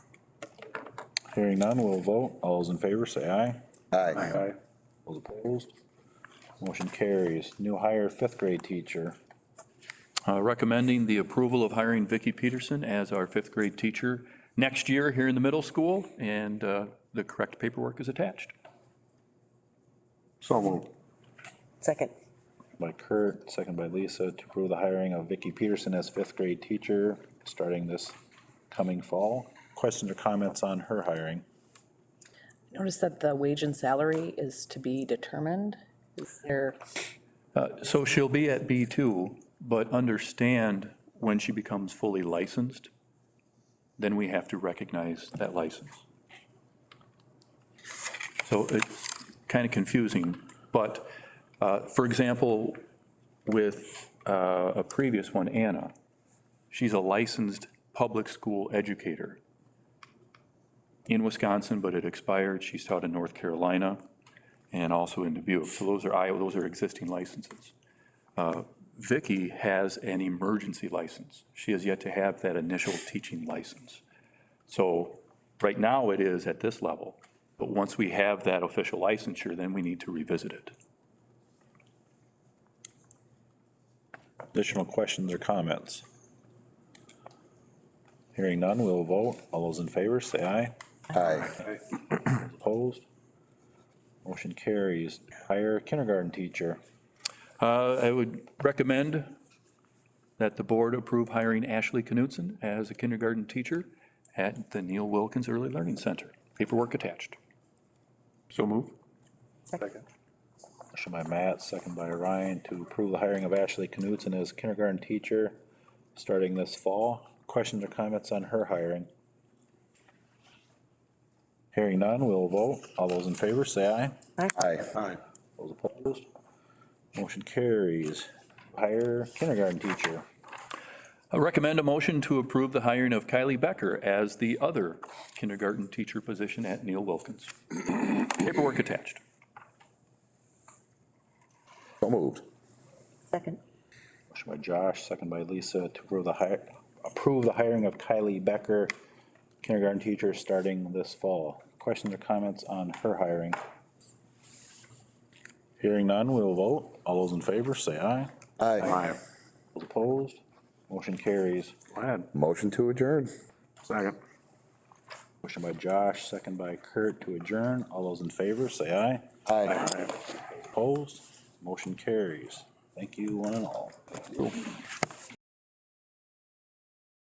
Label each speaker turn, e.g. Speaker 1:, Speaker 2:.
Speaker 1: Hearing none, we'll vote. All those in favor, say aye.
Speaker 2: Aye.
Speaker 1: Aye. Those opposed? Motion carries. New hire fifth grade teacher.
Speaker 3: Uh, recommending the approval of hiring Vicki Peterson as our fifth grade teacher next year here in the middle school, and uh, the correct paperwork is attached.
Speaker 2: So moved.
Speaker 4: Second.
Speaker 1: By Kurt, second by Lisa, to approve the hiring of Vicky Peterson as fifth grade teacher starting this coming fall. Questions or comments on her hiring?
Speaker 4: Notice that the wage and salary is to be determined. Is there,
Speaker 3: Uh, So she'll be at B2, but understand when she becomes fully licensed, then we have to recognize that license. So it's kind of confusing, but, uh, for example, with uh, a previous one, Anna, she's a licensed public school educator in Wisconsin, but it expired. She's taught in North Carolina and also in Dubuque. So those are Iowa, those are existing licenses. Uh, Vicky has an emergency license. She has yet to have that initial teaching license. So right now it is at this level, but once we have that official licensure, then we need to revisit it.
Speaker 1: Additional questions or comments? Hearing none, we'll vote. All those in favor, say aye.
Speaker 2: Aye.
Speaker 1: Opposed? Motion carries. Hire kindergarten teacher.
Speaker 3: Uh, I would recommend that the board approve hiring Ashley Knudsen as a kindergarten teacher at the Neil Wilkins Early Learning Center. Paperwork attached. So move.
Speaker 1: Motion by Matt, second by Ryan, to approve the hiring of Ashley Knudsen as kindergarten teacher starting this fall. Questions or comments on her hiring? Hearing none, we'll vote. All those in favor, say aye.
Speaker 2: Aye. Aye.
Speaker 1: Those opposed? Motion carries. Hire kindergarten teacher.
Speaker 3: I recommend a motion to approve the hiring of Kylie Becker as the other kindergarten teacher position at Neil Wilkins. Paperwork attached.
Speaker 2: So moved.
Speaker 4: second.
Speaker 1: Motion by Josh, second by Lisa, to approve the hire, approve the hiring of Kylie Becker, kindergarten teacher, starting this fall. Questions or comments on her hiring? Hearing none, we will vote. All those in favor, say aye.
Speaker 2: Aye.
Speaker 1: Those opposed? Motion carries.
Speaker 2: Motion to adjourn. Second.
Speaker 1: Motion by Josh, second by Kurt to adjourn. All those in favor, say aye.
Speaker 2: Aye.
Speaker 1: Opposed? Motion carries. Thank you, one and all.